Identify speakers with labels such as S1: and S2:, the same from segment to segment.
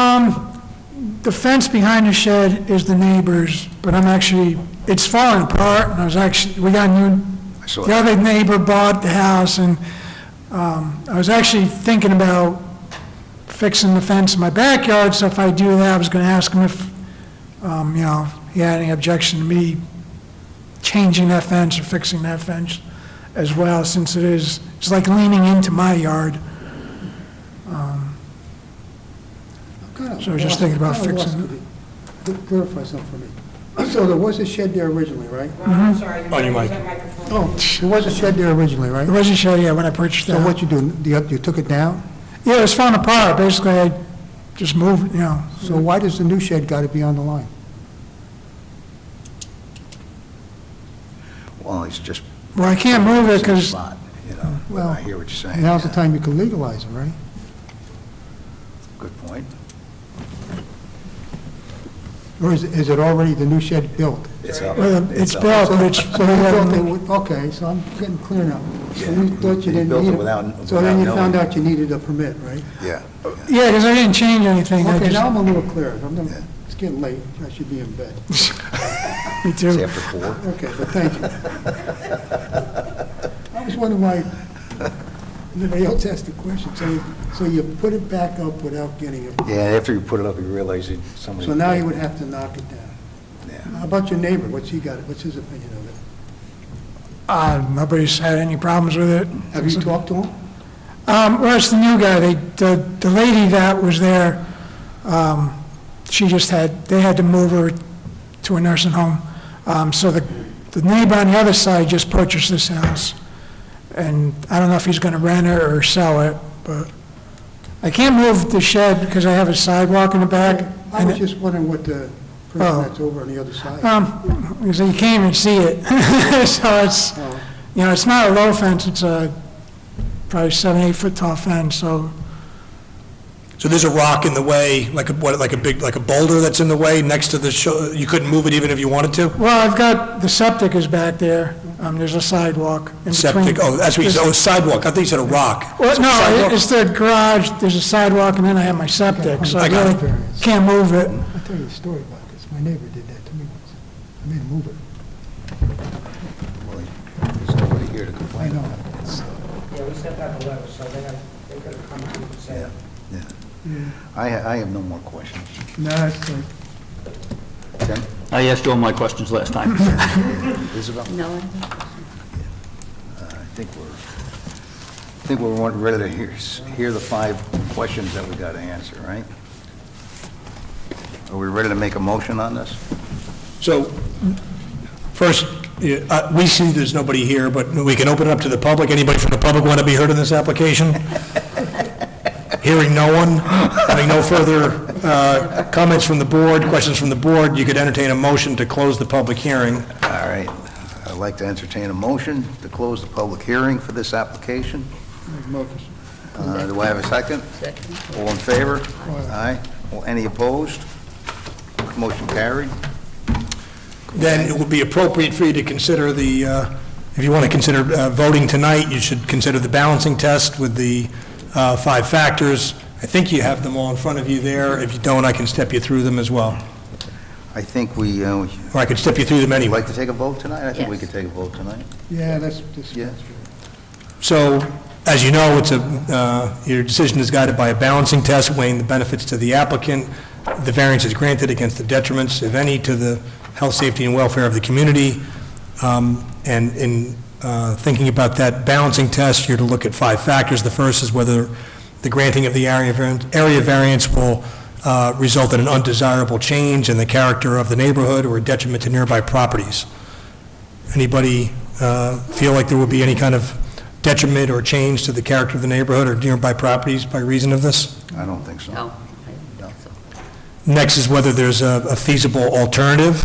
S1: Um, the fence behind the shed is the neighbor's, but I'm actually, it's falling apart, and I was actually, we got new,
S2: I saw
S1: the
S2: it.
S1: other neighbor bought the house, and um, I was actually thinking about fixing the fence in my backyard, so if I do that, I was gonna ask him if, um, you know, he had any objection to me changing that fence or fixing that fence as well, since it is, it's like leaning into my yard. So I was just thinking about
S3: Kinda lost-
S1: fixing it.
S3: kinda lost- Clarify something for me. So there was a shed there originally, right?
S4: Ron, I'm sorry.
S5: On your mic.
S3: Oh, there was a shed there originally, right?
S1: It wasn't sure yet when I purchased
S3: So
S1: that.
S3: what you do, you you took it down?
S1: Yeah, it was falling apart, basically, I just moved, you know.
S3: So why does the new shed got to be on the line?
S2: Well, it's just.
S1: Well, I can't move it uh, because,
S2: Spot, You know,
S3: Well,
S2: I hear what you're saying.
S3: Now's the
S2: yeah.
S3: time you can legalize it, right?
S2: Good point.
S3: Or is, is it already the new shed built?
S2: It's up.
S1: it's
S2: up.
S1: built, but it's,
S3: So you built it with- Okay, so I'm getting clear now. So you
S2: Yeah.
S3: thought
S2: You
S3: you didn't
S2: built it
S3: need
S2: without-
S3: it. So then you
S2: without
S3: found
S2: knowing.
S3: out you needed a permit, right?
S2: Yeah.
S1: yeah, because I didn't change anything, I
S3: Okay, now
S1: just,
S3: I'm a little clearer. I'm
S2: Yeah.
S3: gonna- It's getting late. I should be in bed.
S1: me
S2: It's
S1: too.
S2: after four.
S3: Okay, but thank you. I was wondering why anybody else asked the question. So, so you put it back up without getting it.
S2: Yeah, after you put it up, you realize that somebody.
S3: So now you would have to knock it down.
S2: Yeah.
S3: How about your neighbor? What's he got, what's his opinion of it?
S1: Uh, nobody's had any problems with it.
S3: Have you talked to him?
S1: Um, well, it's the new guy, they, the, the lady that was there, um, she just had, they had to move her to a nursing home. Um, so the, the neighbor on the other side just purchased this house. And I don't know if he's gonna rent it or sell it, but I can't move the shed because I have a sidewalk in the back.
S3: I Uh. was
S1: and-
S3: just wondering what the
S1: Oh.
S3: person that's over on the other side.
S1: Um, because you can't even see it. So it's,
S3: Oh,
S1: you know, it's not a low fence, it's a probably seven, eight foot tall fence, so
S5: So there's a rock in the way, like a, what, like a big, like a boulder that's in the way next to the, sho- you couldn't move it even if you wanted to?
S1: Well, I've got, the septic is back there, um, there's a sidewalk in between.
S5: Septic, oh, that's what you said, oh, sidewalk, I think you said a rock.
S1: Well, no,
S5: Sidewalk.
S1: it- it's the garage, there's a sidewalk, and then I have my septic, so I
S5: I got
S1: really
S3: it. Variance.
S1: can't move it.
S3: I'll tell you a story about this. My neighbor did that to me once. I made him move it.
S2: Well, There's nobody here to
S3: I
S2: complain.
S3: know.
S4: Yeah, we sent out a letter, so they have, they could have come out and
S2: Yeah,
S4: said,
S2: yeah. I, ha- I have no more questions.
S3: No, it's like,
S2: Tim,
S6: I asked you all my questions last time.
S2: Isabel,
S7: No.
S2: I think we're, I think we're want- ready to hear, s- hear the five questions that we got to answer, right? Are we ready to make a motion on this?
S5: So, first, yeah, uh, we see there's nobody here, but we can open it up to the public. Anybody from the public want to be heard in this application? Hearing no one, having no further uh, comments from the board, questions from the board, you could entertain a motion to close the public hearing.
S2: All right, I'd like to entertain a motion to close the public hearing for this application. Uh, Do I have a second?
S7: Second.
S2: All in favor? Aye. Well, Any opposed? Motion carried.
S5: Then it would be appropriate for you to consider the, uh, if you want to consider uh, voting tonight, you should consider the balancing test with the uh, five factors. I think you have them all in front of you there. If you don't, I can step you through them as well,
S2: I think we, uh, would
S5: or I could step you through them
S2: you
S5: anyway.
S2: like to take a vote tonight? I think we
S7: Yes.
S2: could take a vote tonight.
S3: Yeah, that's, that's.
S2: Yes.
S5: So, as you know, it's a, uh, your decision is guided by a balancing test weighing the benefits to the applicant, the variance is granted against the detriments, if any, to the health, safety, and welfare of the community. Um, And in uh, thinking about that balancing test, you're to look at five factors. The first is whether the granting of the area variance, area variance will uh, result in an undesirable change in the character of the neighborhood or detriment to nearby properties. Anybody uh, feel like there will be any kind of detriment or change to the character of the neighborhood or nearby properties by reason of this?
S2: I don't think so.
S7: No. I don't think so.
S5: Next is whether there's a a feasible alternative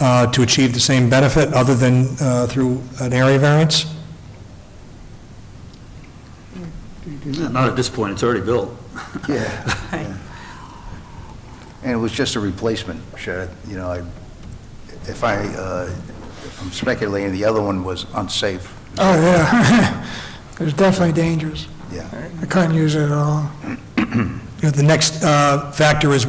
S5: uh, to achieve the same benefit other than uh, through an area variance.
S6: Not at this point, it's already built.
S2: Yeah. And it was just a replacement shed, you know, I, if I, uh, if I'm speculating, the other one was unsafe.
S1: Oh, yeah. It was definitely dangerous.
S2: Yeah.
S1: I couldn't use it at all.
S5: You know, The next uh, factor is